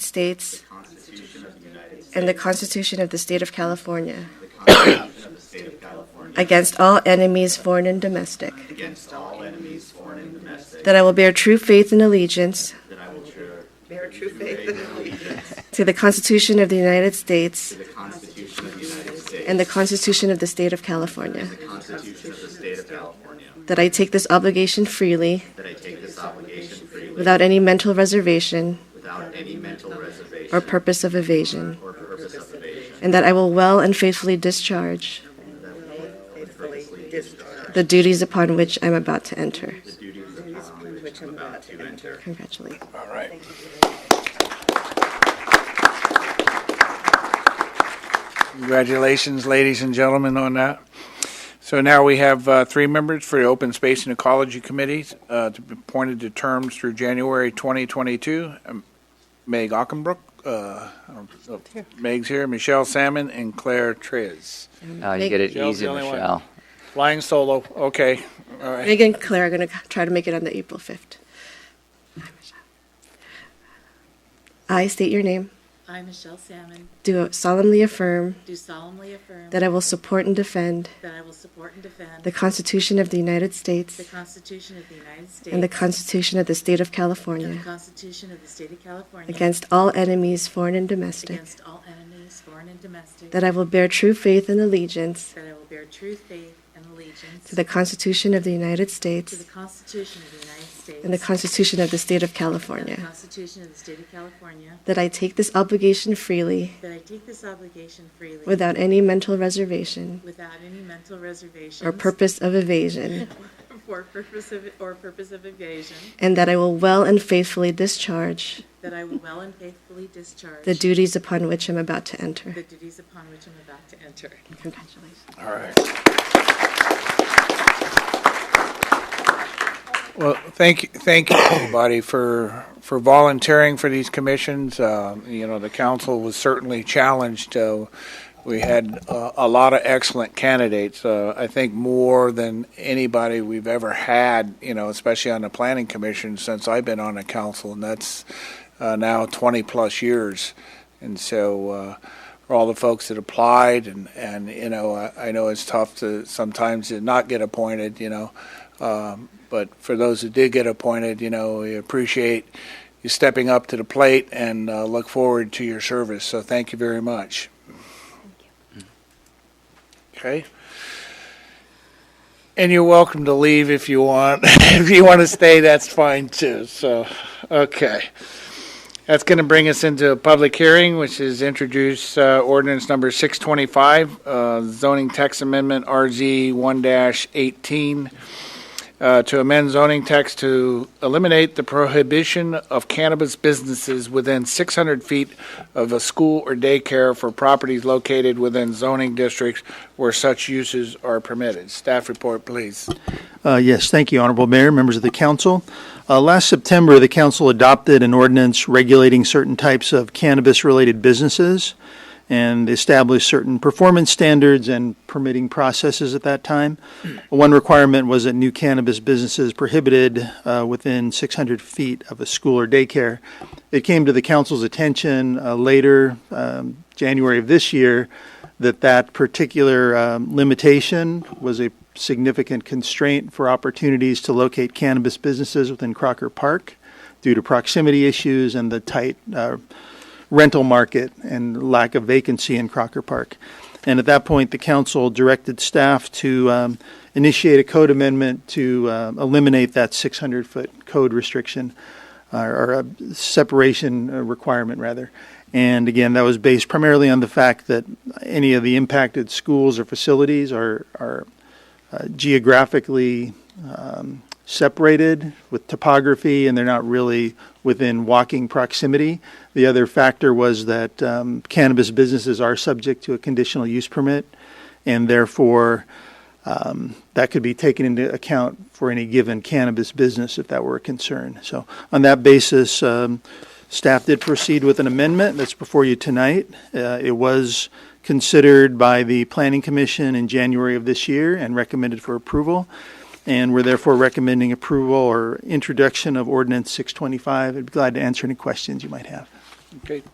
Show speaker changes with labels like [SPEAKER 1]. [SPEAKER 1] States
[SPEAKER 2] Constitution of the United States
[SPEAKER 1] and the Constitution of the State of California
[SPEAKER 2] and the Constitution of the State of California
[SPEAKER 1] against all enemies, foreign and domestic,
[SPEAKER 2] against all enemies, foreign and domestic,
[SPEAKER 1] that I will bear true faith and allegiance
[SPEAKER 2] that I will bear
[SPEAKER 3] Bear true faith and allegiance
[SPEAKER 1] to the Constitution of the United States
[SPEAKER 2] to the Constitution of the United States
[SPEAKER 1] and the Constitution of the State of California,
[SPEAKER 2] the Constitution of the State of California,
[SPEAKER 1] that I take this obligation freely
[SPEAKER 2] that I take this obligation freely
[SPEAKER 1] without any mental reservation
[SPEAKER 2] without any mental reservation
[SPEAKER 1] or purpose of evasion,
[SPEAKER 2] or purpose of evasion,
[SPEAKER 1] and that I will well and faithfully discharge
[SPEAKER 3] faithfully discharge
[SPEAKER 1] the duties upon which I'm about to enter.
[SPEAKER 2] the duties upon which
[SPEAKER 3] which I'm about to enter.
[SPEAKER 1] Congratulations.
[SPEAKER 4] All right. Congratulations, ladies and gentlemen, on that. So now we have uh, three members for the Open Space and Ecology Committee uh, to be appointed to terms through January 2022. Um, Meg Ockenbrook, uh, I don't know if Meg's here, Michelle Salmon, and Claire Trez.
[SPEAKER 5] Oh, you get it
[SPEAKER 4] Michelle's
[SPEAKER 5] easy,
[SPEAKER 4] the only one.
[SPEAKER 5] Michelle.
[SPEAKER 4] Flying solo, okay, all right.
[SPEAKER 1] Megan and Claire are going to try to make it on the April 5th. Hi, Michelle. I state your name,
[SPEAKER 6] I, Michelle Salmon,
[SPEAKER 1] do solemnly affirm
[SPEAKER 6] do solemnly affirm
[SPEAKER 1] that I will support and defend
[SPEAKER 6] that I will support and defend
[SPEAKER 1] the Constitution of the United
[SPEAKER 6] the
[SPEAKER 1] States
[SPEAKER 6] Constitution of the United States
[SPEAKER 1] and the Constitution of the State of
[SPEAKER 6] and the
[SPEAKER 1] California
[SPEAKER 6] Constitution of the State of California
[SPEAKER 1] against all enemies, foreign and domestic,
[SPEAKER 6] against all enemies, foreign and domestic,
[SPEAKER 1] that I will bear true faith and allegiance
[SPEAKER 6] that I will bear true faith and allegiance
[SPEAKER 1] to the Constitution of the United
[SPEAKER 6] to the
[SPEAKER 1] States
[SPEAKER 6] Constitution of the United States
[SPEAKER 1] and the Constitution of the State of
[SPEAKER 6] and the
[SPEAKER 1] California,
[SPEAKER 6] Constitution of the State of California,
[SPEAKER 1] that I take this obligation freely
[SPEAKER 6] that I take this obligation freely
[SPEAKER 1] without any mental reservation
[SPEAKER 6] without any mental reservation
[SPEAKER 1] or purpose of evasion,
[SPEAKER 6] or purpose of or purpose of evasion,
[SPEAKER 1] and that I will well and faithfully discharge
[SPEAKER 6] that I will well and faithfully discharge
[SPEAKER 1] the duties upon which I'm about to enter.
[SPEAKER 6] the duties upon which I'm about to enter.
[SPEAKER 1] Congratulations.
[SPEAKER 4] All right. Well, thank you, thank you, everybody, for, for volunteering for these commissions. Uh, You know, the council was certainly challenged. Uh, We had uh, a lot of excellent candidates, uh, I think more than anybody we've ever had, you know, especially on the planning commission since I've been on the council, and that's uh, now 20-plus years. And so, uh, for all the folks that applied and, and, you know, I, I know it's tough to sometimes to not get appointed, you know. Um, but for those who did get appointed, you know, we appreciate you stepping up to the plate and uh, look forward to your service. So thank you very much. Okay. And you're welcome to leave if you want. if you want to stay, that's fine too. So, okay. That's going to bring us into a public hearing, which is introduce uh, ordinance number 625, uh, zoning text amendment RZ 1-18, uh, to amend zoning text to eliminate the prohibition of cannabis businesses within 600 feet of a school or daycare for properties located within zoning districts where such uses are permitted. Staff report, please.
[SPEAKER 7] Uh, Yes, thank you, Honorable Mayor, members of the council. Uh, Last September, the council adopted an ordinance regulating certain types of cannabis-related businesses and established certain performance standards and permitting processes at that time. One requirement was that new cannabis businesses prohibited uh, within 600 feet of a school or daycare. It came to the council's attention uh, later, um, January of this year, that that particular um, limitation was a significant constraint for opportunities to locate cannabis businesses within Crocker Park due to proximity issues and the tight uh, rental market and lack of vacancy in Crocker Park. And at that point, the council directed staff to um, initiate a code amendment to uh, eliminate that 600 foot code restriction uh, or a separation uh, requirement, rather. And again, that was based primarily on the fact that any of the impacted schools or facilities are, are uh, geographically um, separated with topography and they're not really within walking proximity. The other factor was that um, cannabis businesses are subject to a conditional use permit and therefore um, that could be taken into account for any given cannabis business if that were a concern. So on that basis, um, staff did proceed with an amendment that's before you tonight. Uh, It was considered by the Planning Commission in January of this year and recommended for approval. And we're therefore recommending approval or introduction of ordinance 625. I'd be glad to answer any questions you might have.
[SPEAKER 4] Okay,